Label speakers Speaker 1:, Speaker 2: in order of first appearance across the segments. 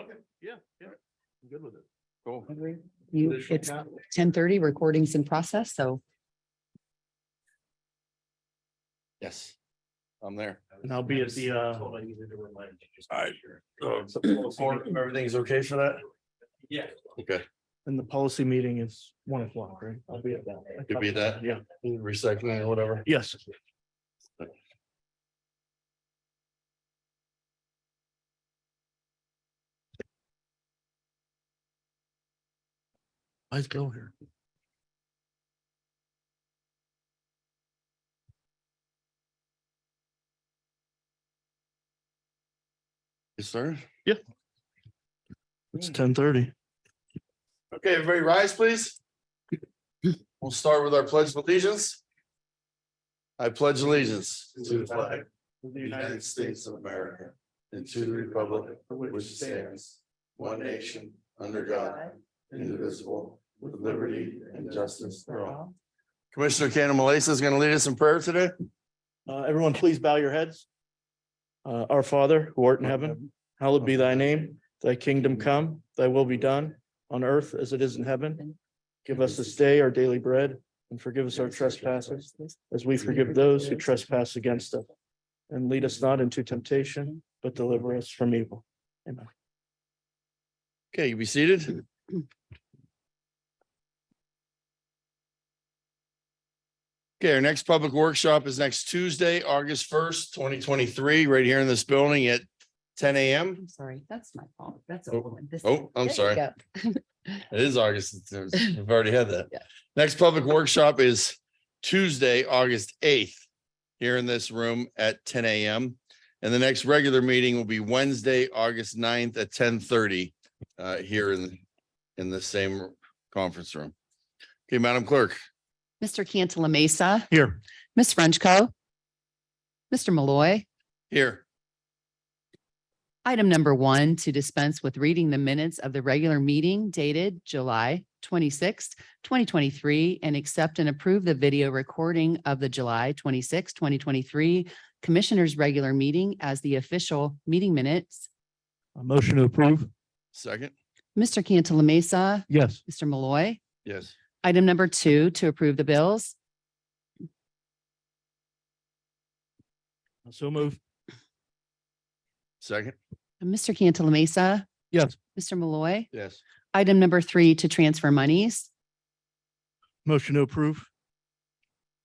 Speaker 1: Okay, yeah, yeah, I'm good with it.
Speaker 2: Cool.
Speaker 3: You,
Speaker 1: Additional
Speaker 3: it's
Speaker 1: capital.
Speaker 3: ten thirty, recording's in process, so
Speaker 2: Yes. I'm there.
Speaker 1: And I'll be at the, uh.
Speaker 2: Alright, Um,
Speaker 1: uh,
Speaker 2: Or-
Speaker 1: Everything's okay for that? Yeah.
Speaker 2: Okay,
Speaker 1: And the policy meeting is one o'clock, right? I'll be at that.
Speaker 2: You'll be at that?
Speaker 1: Yeah,
Speaker 2: recycling or whatever.
Speaker 1: yes. Let's go here.
Speaker 2: Yes, sir.
Speaker 1: It's ten thirty.
Speaker 2: Okay, everybody rise, please. We'll start with our pledge of allegiance. I pledge allegiance to the flag of the United States of America and to the republic which stands one nation under God, indivisible, with liberty and justice for all. Commissioner Cannon Malasa is going to lead us in prayer today.
Speaker 1: Uh, everyone, please bow your heads. Uh, our Father, who art in heaven, hallowed be thy name. Thy kingdom come, thy will be done on earth as it is in heaven. Give us this day our daily bread and forgive us our trespasses as we forgive those who trespass against us. And lead us not into temptation, but deliver us from evil.
Speaker 2: Okay, you be seated. Okay, our next public workshop is next Tuesday, August first, twenty twenty-three, right here in this building at ten AM.
Speaker 3: I'm sorry, that's my fault. That's.
Speaker 2: Oh,
Speaker 3: all. This-
Speaker 2: oh,
Speaker 3: there
Speaker 2: I'm
Speaker 3: you
Speaker 2: sorry.
Speaker 3: go.
Speaker 2: It is August. it's- it's- We've already had that.
Speaker 3: Yeah.
Speaker 2: Next public workshop is Tuesday, August eighth, here in this room at ten AM. And the next regular meeting will be Wednesday, August 9th at ten thirty, uh, here in, in the same conference room. Okay, Madam Clerk.
Speaker 3: Mr. Cantala Mesa,
Speaker 1: Here.
Speaker 3: Ms. Frenchco. Mr. Malloy,
Speaker 2: Here.
Speaker 3: item number one, to dispense with reading the minutes of the regular meeting dated July twenty-sixth, twenty twenty-three, and accept and approve the video recording of the July twenty-sixth, twenty twenty-three Commissioners' Regular Meeting as the official meeting minutes.
Speaker 1: A motion to approve?
Speaker 2: Second.
Speaker 3: Mr. Cantala Mesa,
Speaker 1: Yes.
Speaker 3: Mr. Malloy.
Speaker 2: Yes.
Speaker 3: Item number two, to approve the bills.
Speaker 1: So move.
Speaker 2: Second.
Speaker 3: Mr. Cantala Mesa.
Speaker 1: Yes.
Speaker 3: Mr. Malloy.
Speaker 2: Yes.
Speaker 3: Item number three, to transfer monies.
Speaker 1: Motion to approve?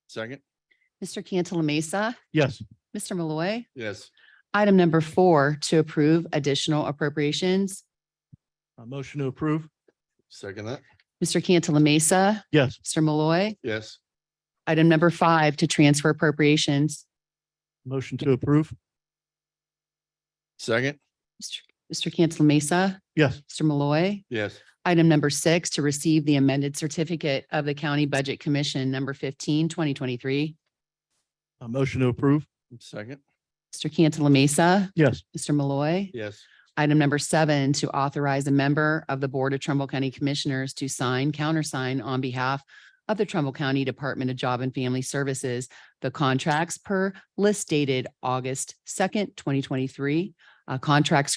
Speaker 2: Second.
Speaker 3: Mr. Cantala Mesa.
Speaker 1: Yes.
Speaker 3: Mr. Malloy.
Speaker 2: Yes.
Speaker 3: Item number four, to approve additional appropriations.
Speaker 1: A motion to approve?
Speaker 2: Second that.
Speaker 3: Mr. Cantala Mesa.
Speaker 1: Yes.
Speaker 3: Mr. Malloy.
Speaker 2: Yes.
Speaker 3: Item number five, to transfer appropriations.
Speaker 1: Motion to approve?
Speaker 2: Second.
Speaker 3: Mr. Mr. Cantala Mesa.
Speaker 1: Yes.
Speaker 3: Mr. Malloy.
Speaker 2: Yes.
Speaker 3: Item number six, to receive the amended certificate of the County Budget Commission, number 15, 2023.
Speaker 1: A motion to approve?
Speaker 2: Second.
Speaker 3: Mr. Cantala Mesa.
Speaker 1: Yes.
Speaker 3: Mr. Malloy.
Speaker 2: Yes.
Speaker 3: Item number seven, to authorize a member of the Board of Trumbull County Commissioners to sign, countersign on behalf of the Trumbull County Department of Job and Family Services, the contracts per list dated August second, twenty twenty-three. Uh, contracts